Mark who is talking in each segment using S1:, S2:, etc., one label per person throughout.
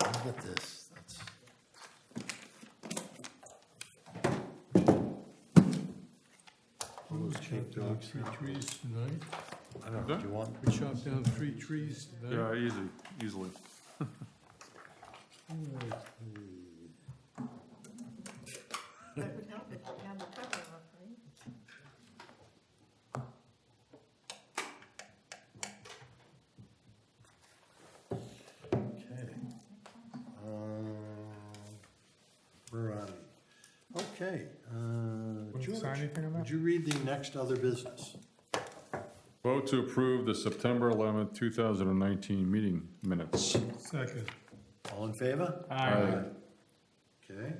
S1: I'll get this. That's-
S2: We chopped down three trees tonight.
S1: I don't know, do you want?
S2: We chopped down three trees tonight.
S3: Yeah, easy, easily.
S4: That would help if we had the cover up, right?
S1: Okay. Um, Where are we? Okay, uh,
S5: Wouldn't sign
S1: George,
S5: anything on
S1: would
S5: that?
S1: you read the next other business?
S3: Vote to approve the September 11th, 2019 meeting minutes.
S2: Second.
S1: All in favor?
S3: Aye.
S1: Okay,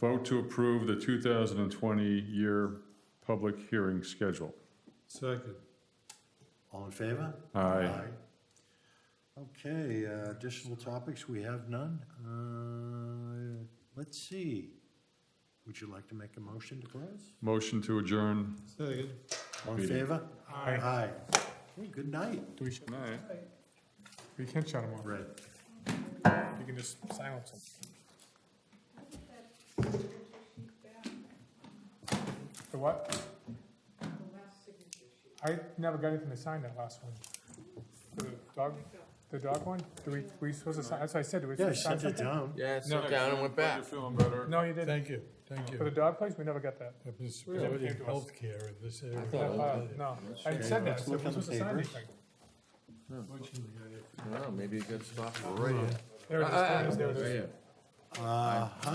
S3: Vote to approve the 2020 year public hearing schedule.
S2: Second.
S1: all in favor?
S3: Aye.
S1: Okay, uh, additional topics, we have none. Uh, Let's see. Would you like to make a motion to close?
S3: Motion to adjourn.
S2: Second.
S1: All in
S3: Meeting.
S1: favor?
S5: Aye.
S1: Aye. Okay, Good night.
S5: Do we, sh-
S3: Aye.
S5: we can't shut them off.
S1: Right.
S5: You can just silence them. The what? I never got anything to sign that last one. The dog, the dog one? Do we, we supposed to sign, that's what I said, do we?
S1: Yeah, I
S5: sign
S1: sent it
S5: something?
S1: down.
S6: Yeah, it
S5: No.
S6: sat down and went back.
S3: feeling better?
S5: No, you didn't.
S2: Thank you, thank
S5: For the
S2: you.
S5: dog place, we never got that.
S2: I've been
S5: Really?
S2: spreading healthcare in this area.
S5: That file, No, I said that,
S1: let's
S5: I
S1: look
S5: said we're
S1: on the
S5: supposed to sign
S1: papers.
S5: anything.
S2: Unfortunately, I-
S6: Oh, maybe it got stopped right here.
S5: There it is, there it is, there it is.
S6: Right here.
S1: Uh,